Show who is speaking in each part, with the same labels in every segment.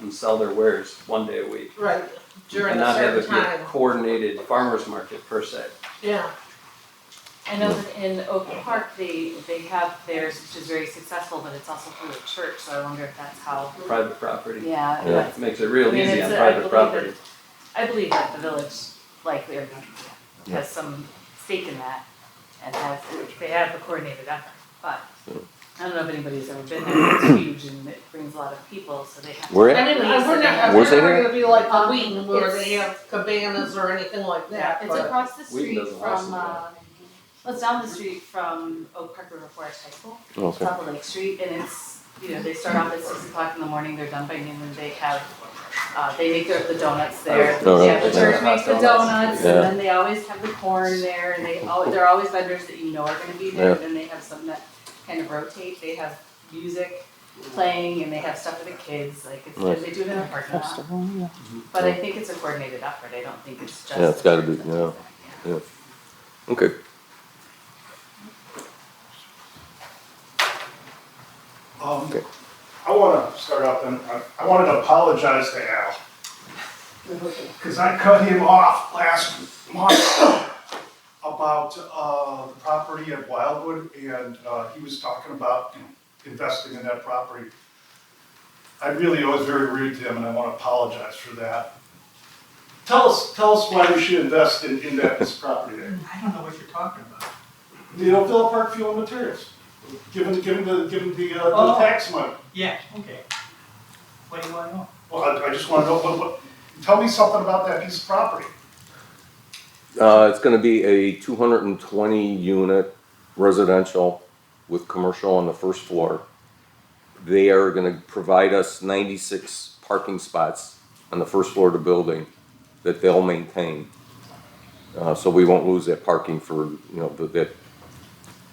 Speaker 1: and sell their wares one day a week.
Speaker 2: right, during
Speaker 1: and
Speaker 2: a
Speaker 1: not have
Speaker 2: certain
Speaker 1: it be a
Speaker 2: time,
Speaker 1: coordinated farmer's market per se.
Speaker 2: yeah,
Speaker 3: I know that in Oak Park, they, they have theirs, which is very successful, but it's also through a church, so I wonder if that's how,
Speaker 1: Private property.
Speaker 3: yeah.
Speaker 4: Yeah.
Speaker 3: that's-
Speaker 1: Makes it
Speaker 3: I
Speaker 1: real
Speaker 3: mean,
Speaker 1: easy
Speaker 3: it's
Speaker 1: on
Speaker 3: a- I
Speaker 1: private
Speaker 3: believe it.
Speaker 1: property.
Speaker 3: I believe that the village likely or
Speaker 4: Yeah.
Speaker 3: has some stake in that and has, they have a coordinated effort, but I don't know if anybody's ever been there, it's huge and it brings a lot of people, so they have.
Speaker 4: We're
Speaker 2: and
Speaker 4: at,
Speaker 2: it, uh, we're not,
Speaker 4: Where's
Speaker 2: we're
Speaker 4: it
Speaker 2: not
Speaker 4: here?
Speaker 2: gonna be like the
Speaker 3: Um,
Speaker 2: Wheaton where they
Speaker 3: it's-
Speaker 2: have cabanas or anything like that,
Speaker 3: It's
Speaker 2: but,
Speaker 3: across the
Speaker 1: Wheaton
Speaker 3: street
Speaker 1: doesn't license
Speaker 3: from, uh, well, it's down the street from Oak Park River Forest High School.
Speaker 4: okay.
Speaker 3: top of Lake Street, and it's, you know, they start off at six o'clock in the morning, they're done by noon, and they have, uh, they make their, the donuts there.
Speaker 4: Oh, really?
Speaker 3: Yeah, the church
Speaker 1: Yeah.
Speaker 3: makes the donuts, and
Speaker 4: Yeah.
Speaker 3: then they always have the corn there, and they al- there are always vendors that you know are gonna be there,
Speaker 4: Yeah.
Speaker 3: then they have some that kind of rotate, they have music playing, and they have stuff for the kids, like, it's,
Speaker 4: Nice.
Speaker 3: and they do it in a parking lot. But I think it's a coordinated effort, I don't think it's just.
Speaker 4: Yeah, it's gotta be,
Speaker 3: the church that does that, yeah.
Speaker 4: Okay.
Speaker 5: Um,
Speaker 4: Okay.
Speaker 5: I want to start off then, I, I wanted to apologize to Al, because I cut him off last month about, uh, the property at Wildwood, and, uh, he was talking about you know, investing in that property. I really was very rude to him, and I want to apologize for that. Tell us, tell us why we should invest in, in that, this property there.
Speaker 6: I don't know what you're talking about.
Speaker 5: The Oakdale Park Fuel and Materials, give him, give him the, give him the, uh,
Speaker 6: Oh.
Speaker 5: the tax money.
Speaker 6: Yeah, okay. What do you want to know?
Speaker 5: Well, I, I just wanna know, what, what, tell me something about that piece of property.
Speaker 4: Uh, it's gonna be a two hundred and twenty unit residential with commercial on the first floor. They are gonna provide us ninety-six parking spots on the first floor of the building that they'll maintain. Uh, so we won't lose that parking for, you know, the, that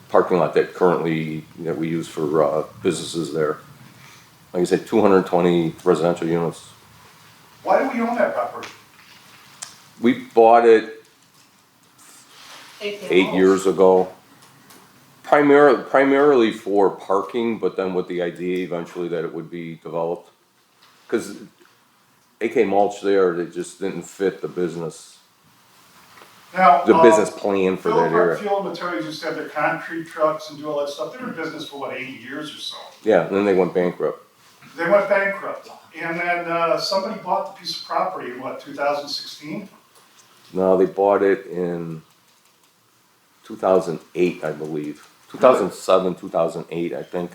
Speaker 4: parking lot that currently, that we use for, uh, businesses there. Like I said, two hundred and twenty residential units.
Speaker 5: Why do we own that property?
Speaker 4: We bought it
Speaker 2: eight
Speaker 4: eight years ago. Primarily, primarily for parking, but then with the idea eventually that it would be developed. Cause AK mulch there, they just didn't fit the business,
Speaker 5: Now,
Speaker 4: the
Speaker 5: uh,
Speaker 4: business plan for
Speaker 5: Phil
Speaker 4: that
Speaker 5: Park
Speaker 4: area.
Speaker 5: Fuel and Materials used to have their concrete trucks and do all that stuff, they were in business for what, eighty years or so.
Speaker 4: Yeah, and then they went bankrupt.
Speaker 5: They went bankrupt, and then, uh, somebody bought the piece of property in what, two thousand sixteen?
Speaker 4: No, they bought it in two thousand eight, I believe, two thousand seven, two thousand eight, I think.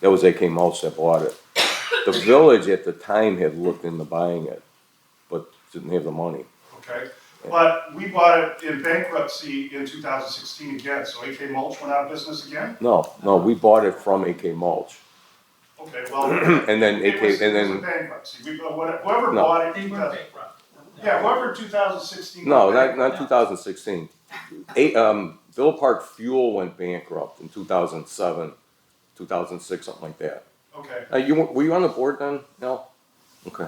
Speaker 4: That was AK mulch that bought it. The village at the time had looked into buying it, but didn't have the money.
Speaker 5: Okay, but we bought it in bankruptcy in two thousand sixteen again, so AK Mulch went out of business again?
Speaker 4: No, no, we bought it from AK Mulch,
Speaker 5: Okay, well,
Speaker 4: and then
Speaker 5: it
Speaker 4: AK,
Speaker 5: was,
Speaker 4: and
Speaker 5: it was
Speaker 4: then
Speaker 5: in bankruptcy, we, uh, whoever
Speaker 4: No.
Speaker 5: bought it,
Speaker 6: They
Speaker 5: in
Speaker 6: were
Speaker 5: 2000
Speaker 6: bankrupt.
Speaker 5: yeah, whoever two thousand sixteen.
Speaker 4: no, not not 2016. Eight, um, Villa Park Fuel went bankrupt in 2007, 2006, something like that.
Speaker 5: Okay,
Speaker 4: Uh, you were were you on the board then? No. Okay.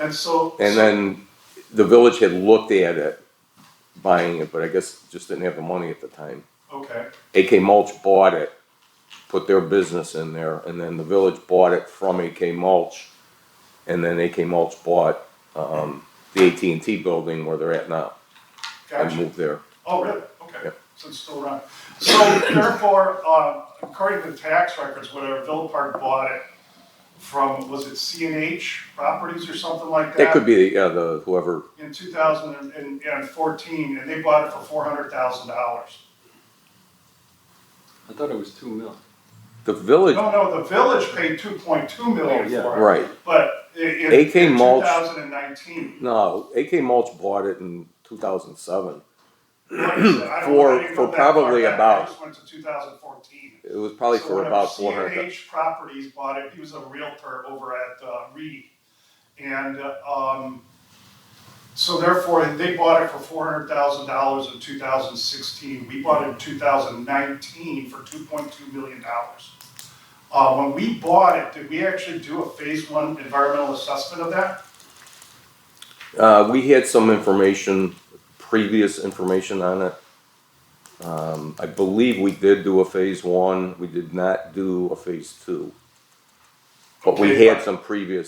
Speaker 5: and so.
Speaker 4: And then the village had looked at it, buying it, but I guess just didn't have the money at the time.
Speaker 5: Okay,
Speaker 4: AK Mulch bought it, put their business in there, and then the village bought it from AK Mulch, and then AK Mulch bought um, the AT and T building where they're at now. I
Speaker 5: gotcha.
Speaker 4: moved there.
Speaker 5: Oh, really? Okay,
Speaker 4: Yep.
Speaker 5: so it's still around. So therefore, um, according to the tax records, whatever, Villa Park bought it from, was it C and H Properties or something like that?
Speaker 4: That could be yeah, the whoever.
Speaker 5: In two thousand and fourteen, and they bought it for four hundred thousand dollars.
Speaker 1: I thought it was two mil.
Speaker 4: The village,
Speaker 5: No, no, the village paid two point two
Speaker 1: Oh,
Speaker 5: million
Speaker 1: yeah.
Speaker 5: for it,
Speaker 4: right?
Speaker 5: but i- in, in
Speaker 4: AK
Speaker 5: two
Speaker 4: mulch-
Speaker 5: thousand and nineteen.
Speaker 4: No, AK Mulch bought it in 2007. For-
Speaker 5: For,
Speaker 4: for probably
Speaker 5: I
Speaker 4: about-
Speaker 5: just went to two thousand fourteen.
Speaker 4: It was probably
Speaker 5: So
Speaker 4: for
Speaker 5: whenever
Speaker 4: about 400.
Speaker 5: CNH Properties bought it, he was a realtor over at uh, Reed. And, um, so therefore, they bought it for four hundred thousand dollars in two thousand sixteen, we bought it in two thousand nineteen for two point two million dollars. Uh, when we bought it, did we actually do a phase one environmental assessment of that?
Speaker 4: Uh, we had some information, previous information on it. Um, I believe we did do a phase one. We did not do a phase two. But we
Speaker 5: Okay,
Speaker 4: had
Speaker 5: but-
Speaker 4: some previous